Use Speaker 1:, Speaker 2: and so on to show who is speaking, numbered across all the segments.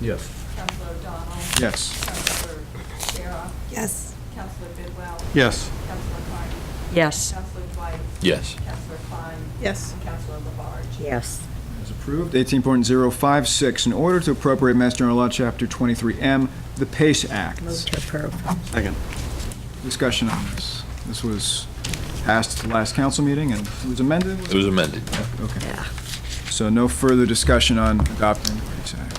Speaker 1: Yes.
Speaker 2: Counselor O'Donnell.
Speaker 3: Yes.
Speaker 2: Counselor Shara.
Speaker 4: Yes.
Speaker 2: Counselor Bidwell.
Speaker 3: Yes.
Speaker 2: Counselor Carney.
Speaker 5: Yes.
Speaker 2: Counselor Dwight.
Speaker 6: Yes.
Speaker 2: Counselor Klein.
Speaker 4: Yes.
Speaker 2: And Counselor Labarge.
Speaker 5: Yes.
Speaker 3: As approved. 18.056, in order to appropriate Mass General Law, Chapter 23M, the PACE
Speaker 5: Move
Speaker 3: Act.
Speaker 5: to approve.
Speaker 7: Second.
Speaker 3: Discussion on this. This was passed at the last council meeting and it was amended?
Speaker 6: It was amended.
Speaker 3: Okay.
Speaker 5: Yeah.
Speaker 3: So no further discussion on adopting the PACE Act.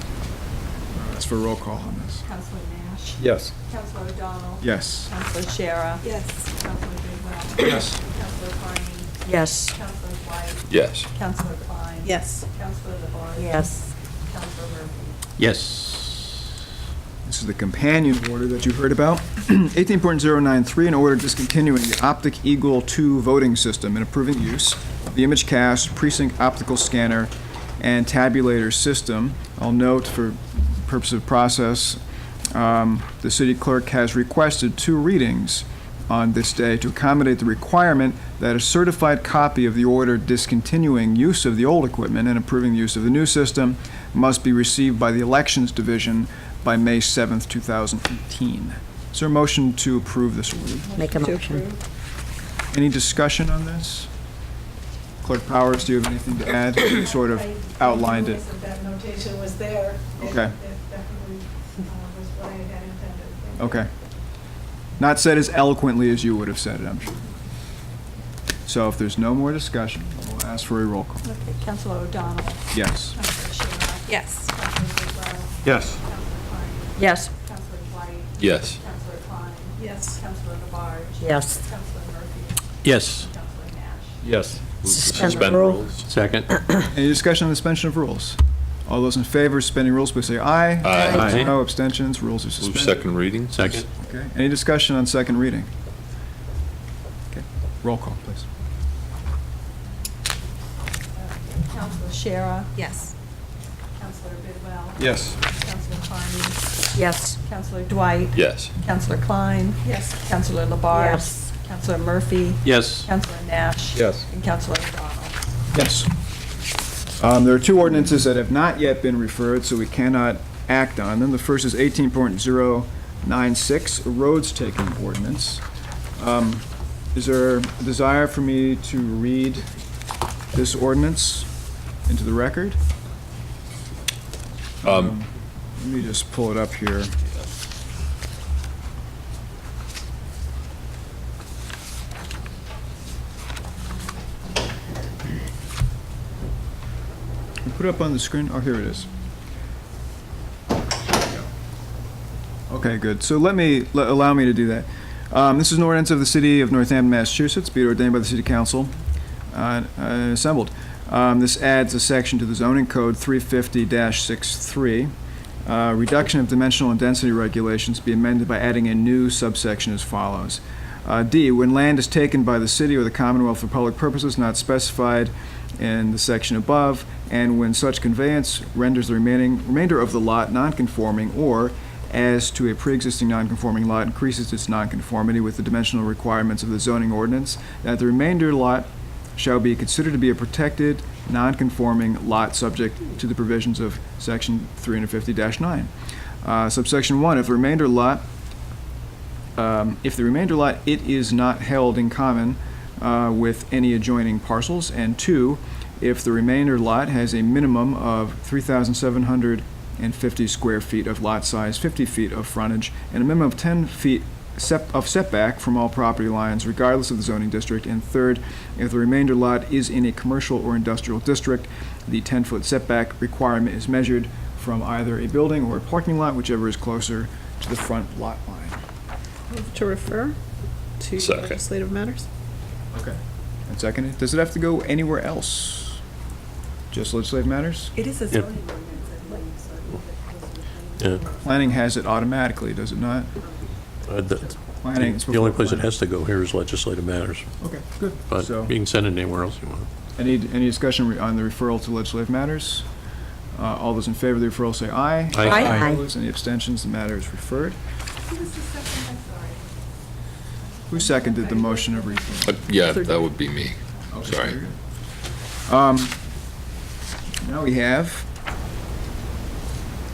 Speaker 3: That's for roll call on this.
Speaker 2: Counselor Nash.
Speaker 1: Yes.
Speaker 2: Counselor O'Donnell.
Speaker 3: Yes.
Speaker 2: Counselor Shara.
Speaker 4: Yes.
Speaker 2: Counselor Bidwell.
Speaker 3: Yes.
Speaker 2: Counselor Carney.
Speaker 5: Yes.
Speaker 2: Counselor Dwight.
Speaker 6: Yes.
Speaker 2: Counselor Klein.
Speaker 4: Yes.
Speaker 2: Counselor Labarge.
Speaker 5: Yes.
Speaker 2: Counselor Murphy.
Speaker 7: Yes.
Speaker 3: This is the companion order that you heard about. 18.093, an order discontinuing the Optic Eagle 2 voting system and approving use of the image cast, precinct optical scanner, and tabulator system. I'll note for purpose of process, um, the city clerk has requested two readings on this day to accommodate the requirement that a certified copy of the order discontinuing use of the old equipment and approving the use of the new system must be received by the Elections Division by May 7th, 2018. Is there a motion to approve this order?
Speaker 5: Make a
Speaker 4: To
Speaker 5: motion.
Speaker 4: approve.
Speaker 3: Any discussion on this? Clerk Powers, do you have anything to add? You sort of outlined it.
Speaker 8: That notation was there.
Speaker 3: Okay.
Speaker 8: That definitely uh, was what I had intended.
Speaker 3: Okay. Not said as eloquently as you would have said it, I'm sure. So if there's no more discussion, we'll ask for a roll call.
Speaker 2: Okay, Counselor O'Donnell.
Speaker 3: Yes.
Speaker 2: Counselor Shara.
Speaker 4: Yes.
Speaker 2: Counselor Bidwell.
Speaker 7: Yes.
Speaker 2: Counselor Carney.
Speaker 5: Yes.
Speaker 2: Counselor Dwight.
Speaker 6: Yes.
Speaker 2: Counselor Klein.
Speaker 8: Yes.
Speaker 2: Counselor Labarge.
Speaker 5: Yes.
Speaker 2: Counselor Murphy.
Speaker 7: Yes.
Speaker 2: Counselor Nash.
Speaker 1: Yes.
Speaker 5: Suspend the rule.
Speaker 7: Second.
Speaker 3: Any discussion on the suspension of rules? All those in favor of suspending rules, please say aye.
Speaker 6: Aye.
Speaker 7: Aye.
Speaker 3: No abstentions, rules are
Speaker 6: Move
Speaker 3: suspended.
Speaker 6: second reading?
Speaker 7: Second.
Speaker 3: Okay. Any discussion on second reading? Okay. Roll call, please.
Speaker 2: Counselor Shara.
Speaker 4: Yes.
Speaker 2: Counselor Bidwell.
Speaker 3: Yes.
Speaker 2: Counselor Carney.
Speaker 5: Yes.
Speaker 2: Counselor Dwight.
Speaker 6: Yes.
Speaker 2: Counselor Klein.
Speaker 8: Yes.
Speaker 2: Counselor Labarge.
Speaker 5: Yes.
Speaker 2: Counselor Murphy.
Speaker 7: Yes.
Speaker 2: Counselor Nash.
Speaker 1: Yes.
Speaker 2: And Counselor O'Donnell.
Speaker 3: Yes. Um, There are two ordinances that have not yet been referred, so we cannot act on them. The first is 18.096, a roads taking ordinance. Um, Is there a desire for me to read this ordinance into the record?
Speaker 6: Um,
Speaker 3: Let me just pull it up here. You Put it up on the screen, oh, here it is. Okay, good. So let me, l- allow me to do that. Um, This is an ordinance of the City of Northampton, Massachusetts, be it ordained by the City Council uh, uh, assembled. Um, This adds a section to the zoning code 350-63, uh, reduction of dimensional and density regulations be amended by adding a new subsection as follows. Uh, D, when land is taken by the city or the Commonwealth for public purposes not specified in the section above, and when such conveyance renders the remaining, remainder of the lot nonconforming, or as to a pre-existing nonconforming lot increases its nonconformity with the dimensional requirements of the zoning ordinance, that the remainder lot shall be considered to be a protected, non-conforming lot subject to the provisions of section 350-9. Uh, Subsection 1, if the remainder lot, um, if the remainder lot, it is not held in common uh, with any adjoining parcels. And 2, if the remainder lot has a minimum of 3,750 square feet of lot size, 50 feet of frontage, and a minimum of 10 feet sep- of setback from all property lines regardless of the zoning district. And third, if the remainder lot is in a commercial or industrial district, the 10-foot setback requirement is measured from either a building or a parking lot, whichever is closer to the front lot line.
Speaker 4: Move to refer to
Speaker 6: Second.
Speaker 4: legislative matters.
Speaker 3: Okay. And second, does it have to go anywhere else? Just legislative matters?
Speaker 8: It is a
Speaker 7: Yep.
Speaker 8: zoning ordinance, I believe, so I think that goes with the-
Speaker 7: Yeah.
Speaker 3: Planning has it automatically, does it not?
Speaker 7: Uh, The
Speaker 3: Planning. is
Speaker 7: the
Speaker 3: before
Speaker 7: only place it
Speaker 3: planning.
Speaker 7: has to go here is legislative matters,
Speaker 3: Okay, good.
Speaker 7: but
Speaker 3: So-
Speaker 7: you can send it anywhere else you want.
Speaker 3: Any, any discussion re- on the referral to legislative matters? Uh, All those in favor of the referral say aye.
Speaker 7: Aye.
Speaker 5: Aye. Aye.
Speaker 3: Opposed, any abstentions, the matter is referred.
Speaker 8: Who was the second? I'm sorry.
Speaker 3: Who seconded the motion of referral?
Speaker 6: uh, Yeah, that would be me.
Speaker 3: Okay,
Speaker 6: Sorry.
Speaker 3: very good. Um, Now we have